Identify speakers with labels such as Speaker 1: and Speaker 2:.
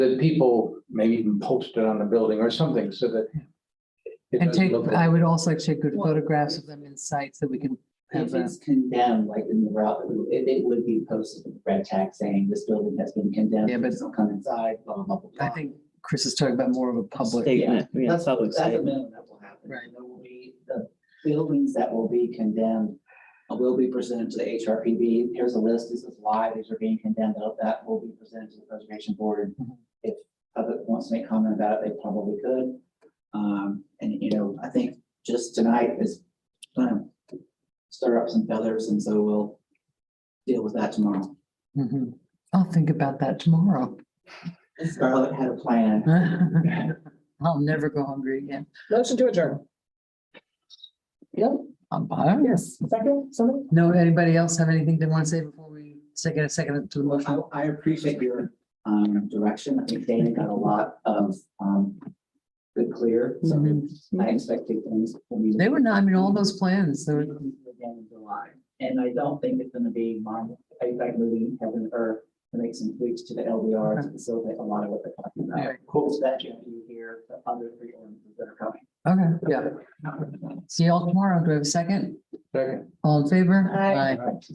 Speaker 1: that people maybe even post it on the building or something so that. it
Speaker 2: And
Speaker 1: doesn't
Speaker 2: take,
Speaker 1: look
Speaker 2: I
Speaker 1: like-
Speaker 2: would also like to take good
Speaker 3: Well-
Speaker 2: photographs of them in sites that we can have
Speaker 3: If
Speaker 2: a
Speaker 3: it's condemned, like in the route, it, it would be posted with red tag saying this building has been condemned.
Speaker 2: Yeah, but-
Speaker 3: please don't Come inside, blah, blah, blah, blah.
Speaker 2: I think Chris is talking about more of a public.
Speaker 4: Statement, yeah,
Speaker 3: That's,
Speaker 4: public
Speaker 3: that's a
Speaker 4: statement.
Speaker 3: minimum that will happen.
Speaker 2: Right.
Speaker 3: There will be, the buildings that will be condemned uh, will be presented to the HRPB. Here's a list. This is why these are being condemned. Of That will be presented to the preservation board.
Speaker 2: Mhm.
Speaker 3: If public wants to make comment about it, they probably could. Um, and you know, I think just tonight is gonna stir up some feathers and so we'll deal with that tomorrow.
Speaker 2: Mhm. I'll think about that tomorrow.
Speaker 3: Scarlett had a plan.
Speaker 2: I'll never go hungry again.
Speaker 5: Motion to adjourn.
Speaker 2: I'm fine.
Speaker 5: Yes. Second, somebody?
Speaker 2: No, anybody else have anything they want to say before we take a second to the motion?
Speaker 3: I, I appreciate your, um, direction. I think Dana got a lot of, um, good clear, so I expected things. from you.
Speaker 2: Mm-hmm. They were not, I mean, all those plans, they were,
Speaker 3: Again in July, and I don't think it's gonna be mine, I think moving heaven and earth to make some tweaks to the LDR to facilitate a lot of what they're talking about.
Speaker 2: Yeah.
Speaker 3: Cool. That you hear the other three ordinances that are coming.
Speaker 2: okay, yeah. See y'all tomorrow. Do I have a second?
Speaker 1: Second.
Speaker 2: All in favor?
Speaker 5: Aye.